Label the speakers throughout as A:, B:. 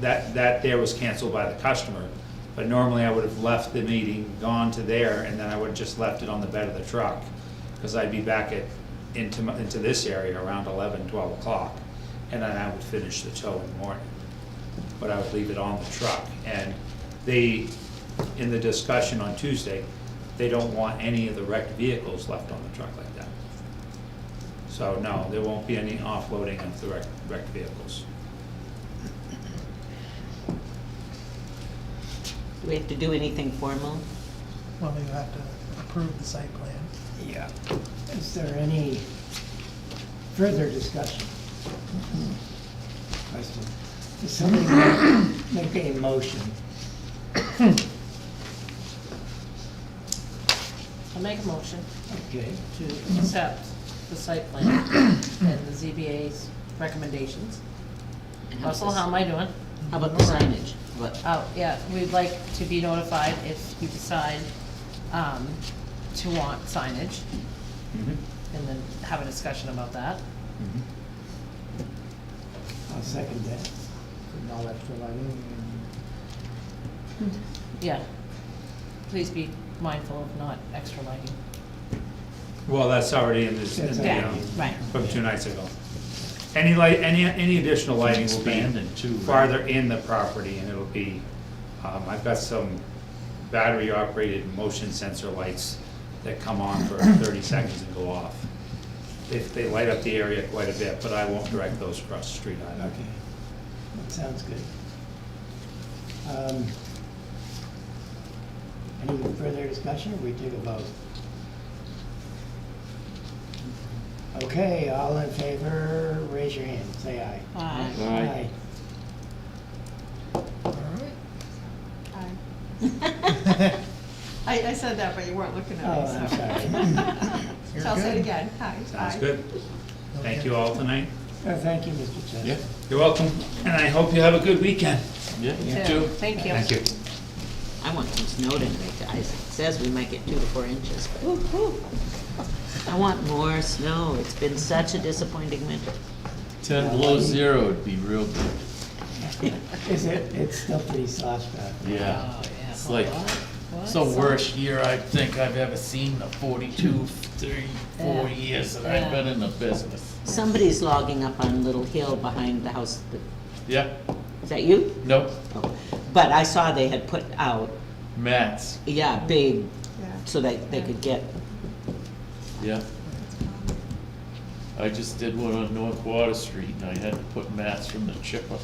A: that, that there was canceled by the customer. But normally I would have left the meeting, gone to there, and then I would have just left it on the bed of the truck. Because I'd be back at, into, my- into this area around eleven, twelve o'clock. And then I would finish the tow in the morning. But I would leave it on the truck. And they, in the discussion on Tuesday, they don't want any of the wrecked vehicles left on the truck like that. So no, there won't be any offloading of the wrecked, wrecked vehicles.
B: Do we have to do anything formal?
C: Well, we have to approve the site plan.
A: Yeah.
D: Is there any further discussion? Question. Does somebody make make a motion?
E: I'll make a motion
D: Okay,
E: to accept the site plan and the ZBA's recommendations. Russell, how am I doing?
B: How about the signage? What,
E: Oh, yeah, we'd like to be notified if you decide, um, to want signage, and then have a discussion about that.
D: I'll second that. And all extra lighting
E: Yeah. Please be mindful of not extra lighting.
A: Well, that's already in this, in the,
D: Yeah,
A: um,
E: right.
A: from two nights ago. Any light, any, any additional lighting will be
F: Expanded too, right?
A: farther in the property and it'll be, um, I've got some battery operated motion sensor lights that come on for thirty seconds and go off. They, they light up the area quite a bit, but I won't direct those across the street
D: and-
A: either.
D: Okay, that sounds good. Um, Any further discussion, or we take a vote? Okay, all in favor, raise your hand, say aye.
B: Aye.
D: Aye.
C: All right.
G: Hi. I, I said that, but you weren't looking at me,
D: Oh, I'm
G: so.
D: sorry.
C: You're
G: So I'll say
C: good.
G: it again, hi.
A: Sounds
G: Aye.
A: good. Thank you all tonight.
D: Uh, Thank you, Mr. Chester.
F: Yeah.
A: You're welcome, and I hope you have a good weekend.
F: Yeah, you
E: So,
F: too.
E: Thank you.
A: Thank you.
B: I want some snow tonight, guys. It says we might get two to four inches, but I want more snow. It's been such a disappointing winter.
F: Ten below zero would be real good.
D: Is it, it's still pretty soft out there.
F: Yeah.
E: Oh, yeah.
F: It's like,
E: What?
F: it's the worst year I think I've ever seen, the forty-two, three, four
E: Yeah.
F: years that I've
E: Yeah.
F: been in the business.
B: Somebody's logging up on Little Hill behind the house. that-
F: Yeah,
B: Is that you?
F: nope,
B: Oh. But I saw they had put out,
F: mats,
B: yeah, big,
G: Yeah.
B: so that they could get,
F: yeah. I just did one on North Water Street and I had to put mats from the chipper,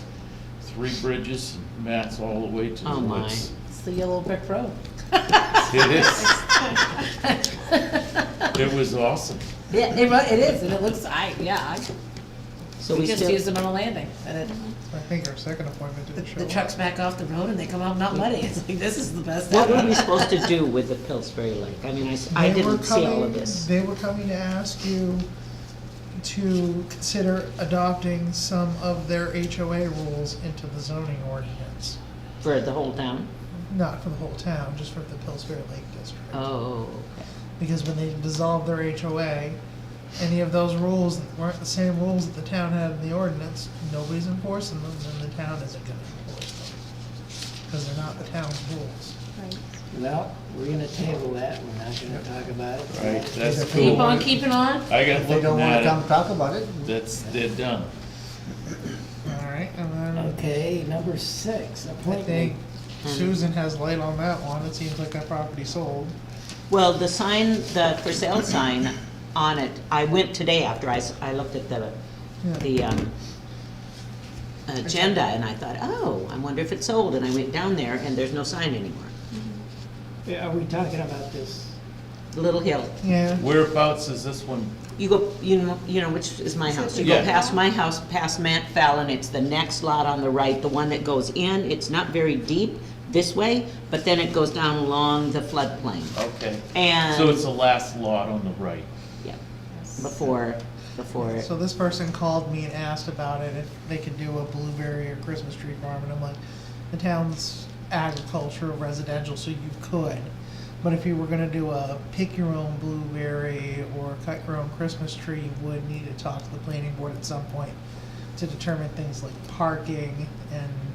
F: three bridges, and mats all the way to the
B: Oh, my.
F: woods.
E: It's the yellow brick road.
F: It is, it was awesome.
E: Yeah, it, wa- it is, and it looks, I, yeah, I,
B: so
E: we
B: we
E: just used
B: still,
E: them on a landing, and it,
C: I think our second appointment
E: the-
C: didn't show
E: the
C: up.
E: trucks back off the road and they come out not muddy, it's like, this is the best.
B: what were
E: ever.
B: we supposed to do with the Pillsbury Lake? I mean, I s- I
C: They were
B: didn't see all
C: coming-
B: of this.
C: They were coming to ask you to consider adopting some of their HOA rules into the zoning ordinance.
B: For the whole town?
C: Not for the whole town, just for the Pillsbury Lake District.
B: Oh,
C: Because when they dissolved their HOA, any of those rules that weren't the same rules that the town had in the ordinance, nobody's enforcing them, and the town isn't gonna enforce them. Because they're not the town's rules.
D: Well, we're gonna table that, we're not gonna talk about it.
F: Right, that's cool.
E: Keep on keeping on.
H: They
F: I got
H: don't
F: looking
H: wanna come
F: at it,
H: talk about it.
F: that's, they're done.
C: All right, and then
D: Okay, number six,
C: I
D: appointment.
C: think Susan has light on that one, it seems like that property sold.
B: Well, the sign, the for sale sign on it, I went today after I, s- I looked at the, the, um, agenda and I thought, oh, I wonder if it's sold, and I went down there and there's no sign anymore.
D: Are we talking about this?
B: Little Hill,
C: Yeah,
F: Whereabouts is this one?
B: you go, you know, you know, which is my house, you go
F: Yeah.
B: past my house, past Matt Fallon, it's the next lot on the right, the one that goes in, it's not very deep this way, but then it goes down along the floodplain.
F: Okay.
B: And,
F: So it's the last lot on the right.
B: yeah, before, before it
C: so this person called me and asked about it, if they could do a blueberry or Christmas tree farm, and I'm like, the town's agricultural residential, so you could. But if you were gonna do a pick your own blueberry or cut your own Christmas tree, you would need to talk to the planning board at some point to determine things like parking and